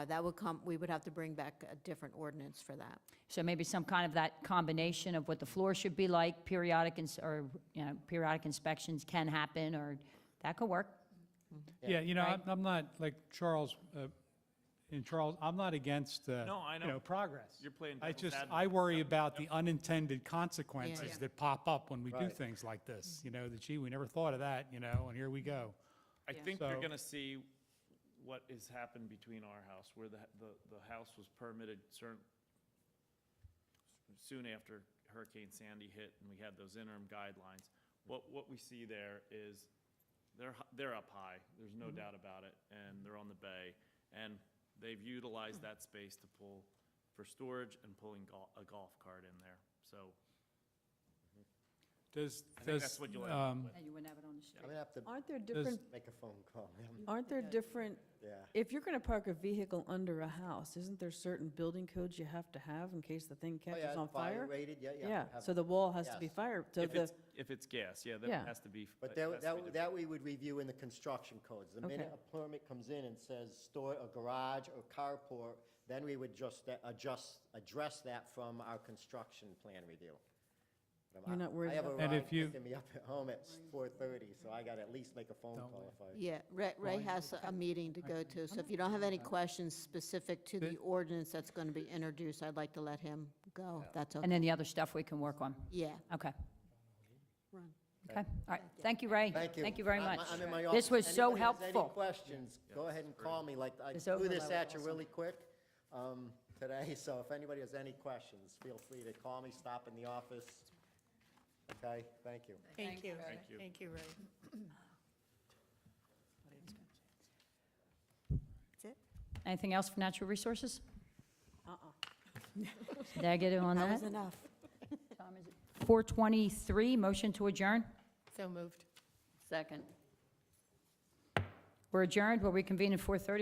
Uh, That would come, we would have to bring back a different ordinance for that. So maybe some kind of that combination of what the floor should be like, periodic, ins- or, you know, periodic inspections can happen, or, that could work. Yeah, you know, Right. I'm, I'm not, like Charles, uh, in Charles, I'm not against, uh, No, I you know. know, progress. You're playing I devil's just, advocate. I worry about the unintended consequences Yeah. that pop up when we do Right. things like this, you know, that gee, we never thought of that, you know, and here we go. I think they're So- gonna see what has happened between our house, where the, the, the house was permitted certain, soon after Hurricane Sandy hit, and we had those interim guidelines. What, what we see there is, they're, h- they're up high, there's no Mm-hmm. doubt about it, and they're on the bay, and they've utilized that space to pull for storage and pulling gol- a golf cart in there, so Does, I think that's does, what you'll end up um, with. And you wouldn't have it on the street. I'm gonna have to Aren't there different, make a phone call. man. aren't there different, Yeah. if you're going to park a vehicle under a house, isn't there certain building codes you have to have in case the thing Oh, catches yeah, on fire? rated, yeah, yeah. Yeah, have- so the wall has to be Yes. fire, so If the, it's, if it's gas, yeah, Yeah. that has to be. But has to that, be that, defined. that we would review in the construction codes. The minute Okay. a permit comes in and says store, a garage or carport, then we would just, a- adjust, address that from our construction plan review. But I'm- You're not worried I have a about- And ride if you- picking me up at home at four thirty, so I gotta at least make a phone Don't call if I. Yeah, Ray, Ray has a meeting to go to, so if you don't have any questions specific to the Th- ordinance that's going to be introduced, I'd like to let him go, if that's And okay. then the other stuff we can work on. Yeah. Okay. Run. Okay, all right. Thank you, Ray. Thank you. very I'm- much. I'm in my This office. was so Anybody has Any helpful. questions, go ahead and call me, like, I This threw overlay this was at you awesome. really quick um, today, so if anybody has any questions, feel free to call me, stop in the office. Okay, thank you. Thank you. Thank you. Thank you, Ray. That's it? Anything else for natural resources? uh-uh, Negative on That that. was enough. 423, motion to adjourn. So moved. Second. We're adjourned. We'll reconvene at 4:30